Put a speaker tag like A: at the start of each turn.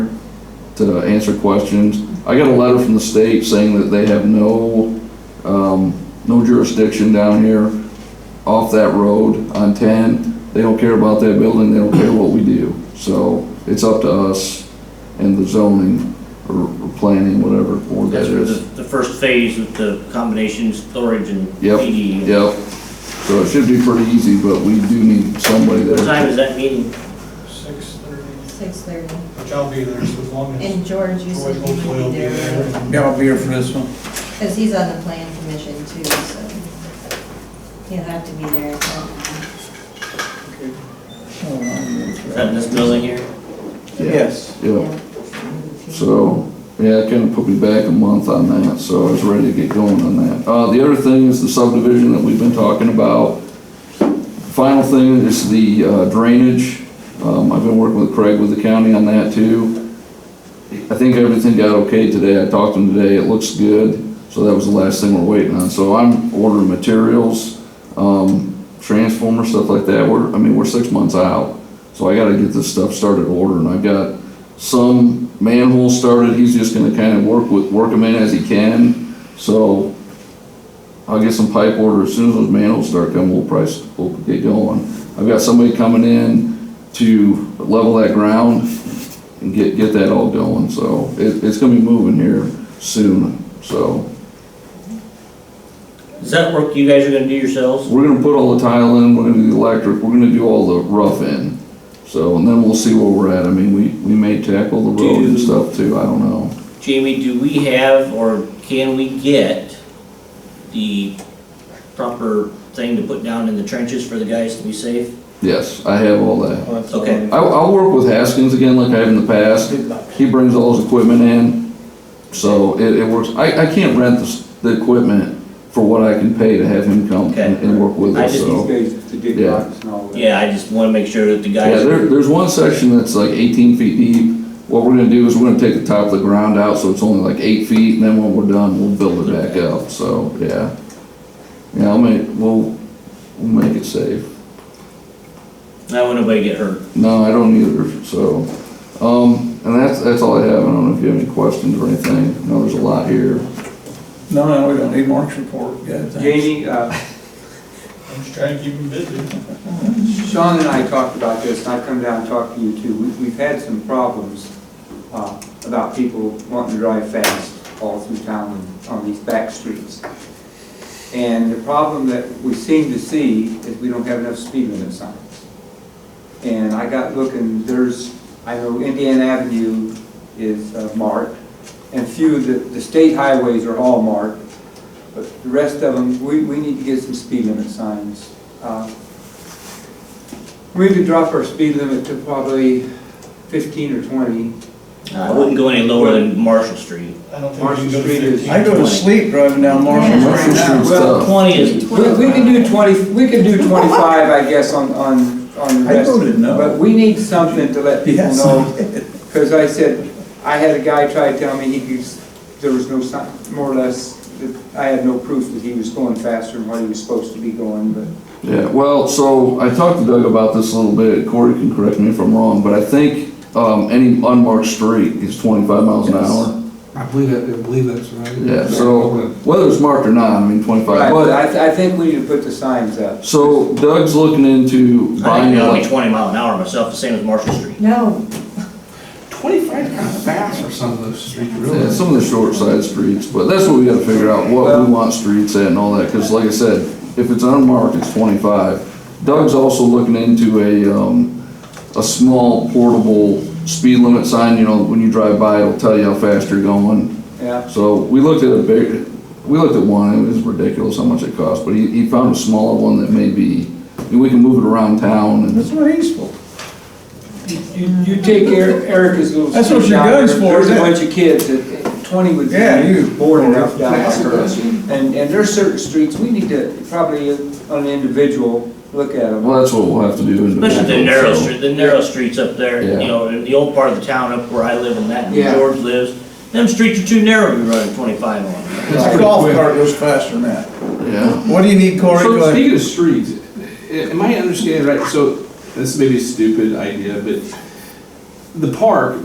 A: to answer questions. I got a letter from the state saying that they have no, um, no jurisdiction down here off that road on ten. They don't care about that building, they don't care what we do. So it's up to us and the zoning or or planning, whatever board that
B: That's for the,
A: is.
B: the first phase with the combination storage and
A: Yep.
B: PD.
A: Yep. So it should be pretty easy, but we do need somebody
B: What time
A: there.
B: is that meeting?
C: Six thirty,
D: Six thirty.
C: which I'll be there so as long as
D: And George, you
C: Troy
D: said you
C: hopefully will
D: would
C: be
D: be there,
C: there.
E: Yeah, I'll be here for this one.
D: because he's on the plan commission too, so he'll have to be there.
B: Is that in this building here?
E: Yes.
A: Yep. So, yeah, it kind of put me back a month on that, so I was ready to get going on that. Uh, the other thing is the subdivision that we've been talking about. Final thing is the uh, drainage. Um, I've been working with Craig with the county on that too. I think everything got okay today. I talked to him today. It looks good. So that was the last thing we're waiting on. So I'm ordering materials, um, transformer, stuff like that. We're, I mean, we're six months out. So I gotta get this stuff started ordering. I've got some manhole started, he's just gonna kind of work with, work them in as he can. So I'll get some pipe order, as soon as those manholes start coming, we'll price, we'll get going. I've got somebody coming in to level that ground and get, get that all going, so it, it's gonna be moving here soon, so.
B: Is that work you guys are gonna do yourselves?
A: We're gonna put all the tile in, we're gonna do the electric, we're gonna do all the rough in. So, and then we'll see where we're at, I mean, we, we may tackle the road and
B: Do-
A: stuff too, I don't know.
B: Jamie, do we have or can we get the proper thing to put down in the trenches for the guys to be safe?
A: Yes, I have all that.
B: Okay.
A: I'll, I'll work with Haskins again like I have in the past. He brings all his equipment in, so it, it works. I, I can't rent the, s- the equipment for what I can pay to have him come and, and work with
B: Okay. I
A: us,
B: just-
A: so.
F: These guys to dig
A: Yeah.
F: rocks and all that.
B: Yeah, I just wanna make sure that the
A: Yeah,
B: guys,
A: there, there's one section that's like eighteen feet deep. What we're gonna do is we're gonna take the top of the ground out, so it's only like eight feet, and then when we're done, we'll build it back up, so, yeah. Yeah, I'll make, we'll, we'll make it safe.
B: I don't want nobody to get hurt.
A: No, I don't either, so, um, and that's, that's all I have, I don't know if you have any questions or anything, I know there's a lot here.
E: No, no, we don't need Mark's report, yeah, thanks.
F: Jamie, uh,
C: I'm just trying to keep them busy.
F: Sean and I talked about this, and I've come down and talked to you too. We- We've had some problems uh, about people wanting to drive fast all through town and on these back streets. And the problem that we seem to see is we don't have enough speed limit signs. And I got looking, there's, I know Indiana Avenue is uh, marked, and few, of the, the state highways are all marked, but the rest of them, we, we need to get some speed limit signs. Uh, We could drop our speed limit to probably fifteen or twenty.
B: I wouldn't go any lower than Marshall Street.
C: I don't think we
F: Marshall
C: can go to
F: Street is-
C: fifteen.
E: I go to sleep driving down Marshall
D: Yeah.
E: right now.
F: Well,
B: Twenty is,
F: We, we can do twenty, we can do twenty-five, I guess, on, on, on the
E: I
F: rest.
E: voted
F: But
E: no.
F: we need something to let people
E: Yes.
F: know, because I said, I had a guy try to tell me he could, there was no sign, more or less, that I had no proof that he was going faster than what he was supposed to be going, but
A: Yeah, well, so I talked to Doug about this a little bit, Corey can correct me if I'm wrong, but I think, um, any unmarked street is twenty-five miles an hour.
G: I believe that, I believe that's right.
A: Yeah, so whether it's marked or not, I mean, twenty-five,
F: Right, but
A: but,
F: I, th- I think we need to put the signs up.
A: so Doug's looking into
B: I think
A: buying,
B: that'll be
A: like,
B: twenty mile an hour myself, the same as Marshall Street.
D: No,
G: Twenty-five kind of fast for some of those streets,
A: yeah,
G: really.
A: some of the short side streets, but that's what we gotta figure out, what
F: Well-
A: we want streets at and all that, cause like I said, if it's unmarked, it's twenty-five. Doug's also looking into a, um, a small portable speed limit sign, you know, when you drive by, it'll tell you how fast you're going.
F: Yeah,
A: So we looked at a big, we looked at one, it was ridiculous how much it cost, but he, he found a smaller one that may be, and we can move it around town and.
E: That's what he's for.
F: you, you take Eric- Erica's little.
E: That's what
F: street
E: your
F: down
E: gun's
F: there,
E: for,
F: There's a
E: isn't it?
F: bunch of kids that, twenty would
E: Yeah, you-
F: be bored enough down
G: That's a
F: there.
G: question.
F: And, and there's certain streets, we need to probably on an individual, look at them.
A: Well, that's what we'll have to do.
B: Especially the
A: individually,
B: narrow
A: so-
B: street, the narrow streets up there, you
A: Yeah.
B: know, in the old part of the town up where I live and that,
F: Yeah.
B: and George lives. Them streets are too narrow to be running twenty-five on.
E: His golf cart goes faster than that.
A: Yeah,
E: What do you need, Corey? Go
G: So
E: ahead.
G: speaking of streets, a- am I understanding right, so this may be a stupid idea, but the park